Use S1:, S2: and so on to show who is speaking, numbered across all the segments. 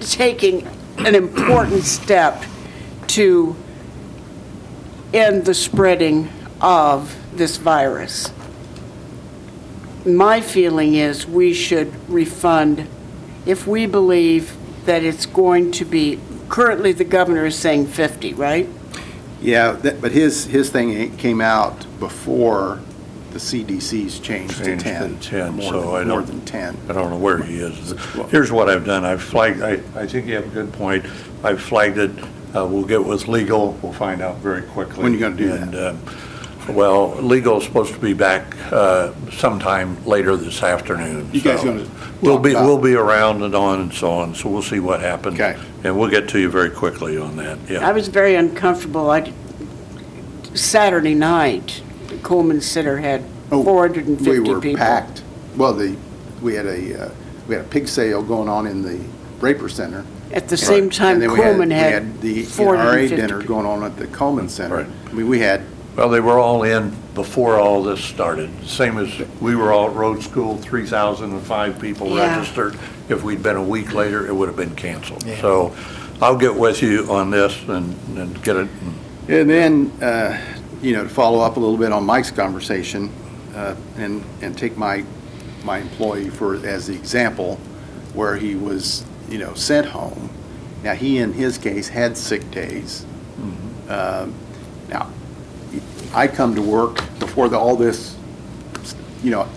S1: taking an important step to end the spreading of this virus. My feeling is we should refund if we believe that it's going to be, currently the governor is saying 50, right?
S2: Yeah, that- but his, his thing came out before the CDC's changed to
S3: Changed to
S2: 10.
S3: 10,
S2: more
S3: so
S2: than-
S3: I don't.
S2: More than 10.
S3: I don't know where he is. Here's what I've done, I've flagged, I, I think you have a good point. I've flagged it, uh, we'll get with legal, we'll find out very quickly.
S2: When you gonna do that?
S3: And, um, Well, legal's supposed to be back uh, sometime later this afternoon.
S2: You guys
S3: so
S2: gonna
S3: We'll
S2: talk
S3: be,
S2: about-
S3: we'll be around and on and so on, so we'll see what happens.
S2: Okay.
S3: And we'll get to you very quickly on that, yeah.
S1: I was very uncomfortable. I, Saturday night, the Coleman Center had
S2: Oh,
S1: 450 people.
S2: We were packed. Well, the, we had a, uh, we had a pig sale going on in the Raper Center.
S1: At the same time,
S2: And then we had-
S1: Coleman had
S2: We had the E
S1: 450
S2: NRA dinner going on at the Coleman Center.
S3: Right.
S2: I mean, we had,
S3: Well, they were all in before all this started, same as we were all at road school, 3,005 people
S1: Yeah.
S3: registered. If we'd been a week later, it would have been canceled. So I'll get with you on this and, and get it,
S2: and then, uh, you know, to follow up a little bit on Mike's conversation, uh, and, and take my, my employee for, as the example, where he was, you know, sent home. Now, he, in his case, had sick days. Um, Now, I come to work before the, all this, you know,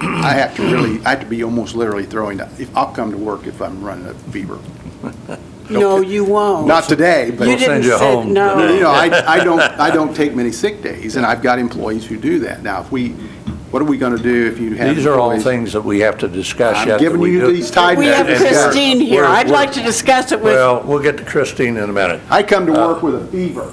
S2: I have to really, I have to be almost literally throwing, if, I'll come to work if I'm running a fever.
S1: No, you won't.
S2: Not today, but.
S1: Oh, You
S3: They'll
S1: didn't
S3: send you
S1: say,
S3: home
S1: no.
S3: today.
S2: You know, I, I don't, I don't take many sick days, and I've got employees who do that. Now, if we, what are we gonna do if you have?
S3: these are all
S2: employees-
S3: things that we have to discuss yet.
S2: I'm
S3: that
S2: giving
S3: we
S2: you
S3: do-
S2: these tied
S1: We have
S3: And-
S2: notes.
S3: and-
S1: Christine here.
S3: we're-
S1: I'd
S3: we're-
S1: like to discuss it with,
S3: Well, we'll get to Christine in a minute.
S2: I come to
S3: Uh,
S2: work with a fever.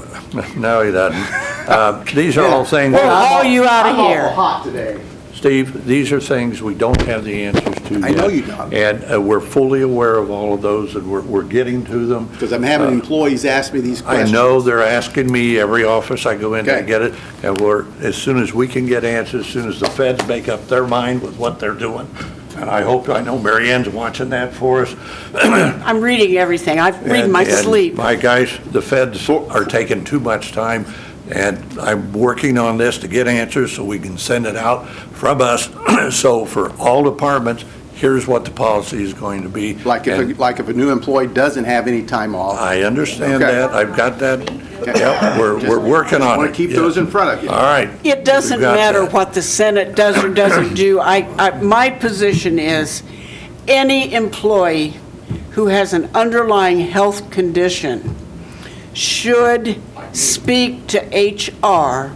S3: No, he doesn't. Uh, These are all things.
S1: We'll haul you outta
S2: I'm
S1: here.
S2: awful hot today.
S3: Steve, these are things we don't have the answers to yet.
S2: I know you don't.
S3: And uh, we're fully aware of all of those, and we're, we're getting to them.
S2: Because I'm having employees ask me these
S3: Uh, I
S2: questions.
S3: know they're asking me, every office I go in to
S2: Okay.
S3: get it, and we're, as soon as we can get answers, as soon as the feds make up their mind with what they're doing, and I hope, I know Mary Ann's watching that for us.
S1: I'm reading everything. I read
S3: And-
S1: my
S3: and
S1: sleep.
S3: My guys, the feds are taking too much time, and I'm working on this to get answers so we can send it out from us. So for all departments, here's what the policy is going to be.
S2: Like if,
S3: And
S2: a- like if a new employee doesn't have any time off,
S3: I understand
S2: Okay.
S3: that, I've got that, yep, we're,
S2: Just-
S3: we're working on it.
S2: I want to keep
S3: yeah.
S2: those in front of you.
S3: All right.
S1: It doesn't
S3: We've got
S1: matter
S3: that.
S1: what the Senate does or doesn't do. I, I, my position is, any employee who has an underlying health condition should speak to HR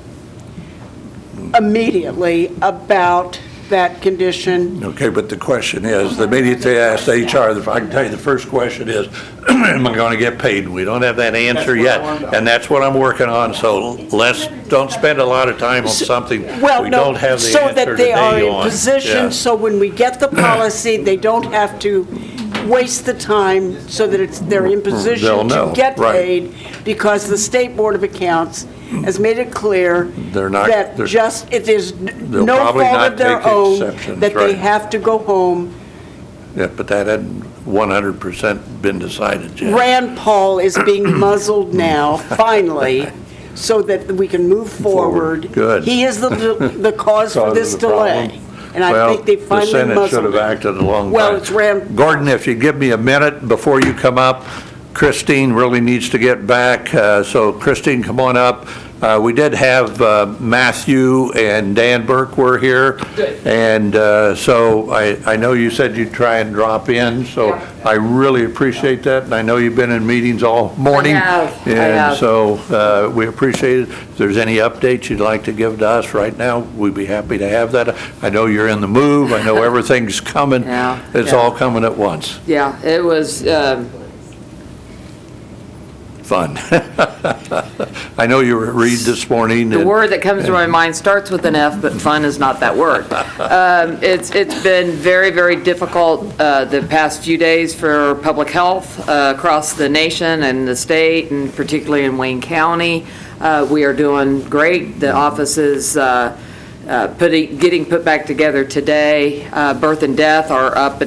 S1: immediately about that condition.
S3: Okay, but the question is, the minute they ask HR, the- I can tell you the first question is, am I going to get paid? We don't have that answer
S2: That's what I
S3: yet.
S2: wanted to-
S3: And that's what I'm working on, so let's, don't spend a lot of time on something
S1: Well,
S3: we
S1: no,
S3: don't have the
S1: so
S3: answer
S1: that they
S3: today
S1: are in
S3: on.
S1: position,
S3: Yeah.
S1: so when we get the policy, they don't have to waste the time so that it's, they're in
S3: They'll
S1: position to
S3: know,
S1: get
S3: right.
S1: paid, because the State Board of Accounts has made it clear
S3: They're not-
S1: that
S3: they're-
S1: just, it is n-
S3: They'll
S1: no
S3: probably
S1: fault of
S3: not
S1: their
S3: take the
S1: own,
S3: exceptions,
S1: that they
S3: right.
S1: have to go home.
S3: Yeah, but that hadn't 100% been decided yet.
S1: Rand Paul is being muzzled now, finally, so that we can move forward.
S3: Good.
S1: He is the, the cause for
S3: Cause of
S1: this
S3: the problem.
S1: delay, and I
S3: Well,
S1: think they finally muzzled
S3: The Senate should have
S1: him.
S3: acted a long time.
S1: Well, it's ram-
S3: Gordon, if you give me a minute before you come up, Christine really needs to get back, uh, so Christine, come on up. Uh, We did have uh, Matthew and Dan Burke were here. And uh, so I I know you said you'd try and drop in, so I really appreciate that, and I know you've been in meetings all morning.
S4: have, I
S3: And
S4: have.
S3: so uh, we appreciate it. If there's any updates you'd like to give to us right now, we'd be happy to have that. I know you're in the move, I know everything's coming.
S4: Yeah,
S3: It's
S4: yeah.
S3: all coming at once.
S4: Yeah, it was, um,
S3: Fun. I know you were at Reed this morning.
S4: the
S3: and-
S4: word that comes to my mind starts with an F, but fun is not that word. Um, It's, it's been very, very difficult uh, the past few days for public health uh, across the nation and the state, and particularly in Wayne County. Uh, We are doing great. The office is uh, uh, putting, getting put back together today. Uh, Birth and death are up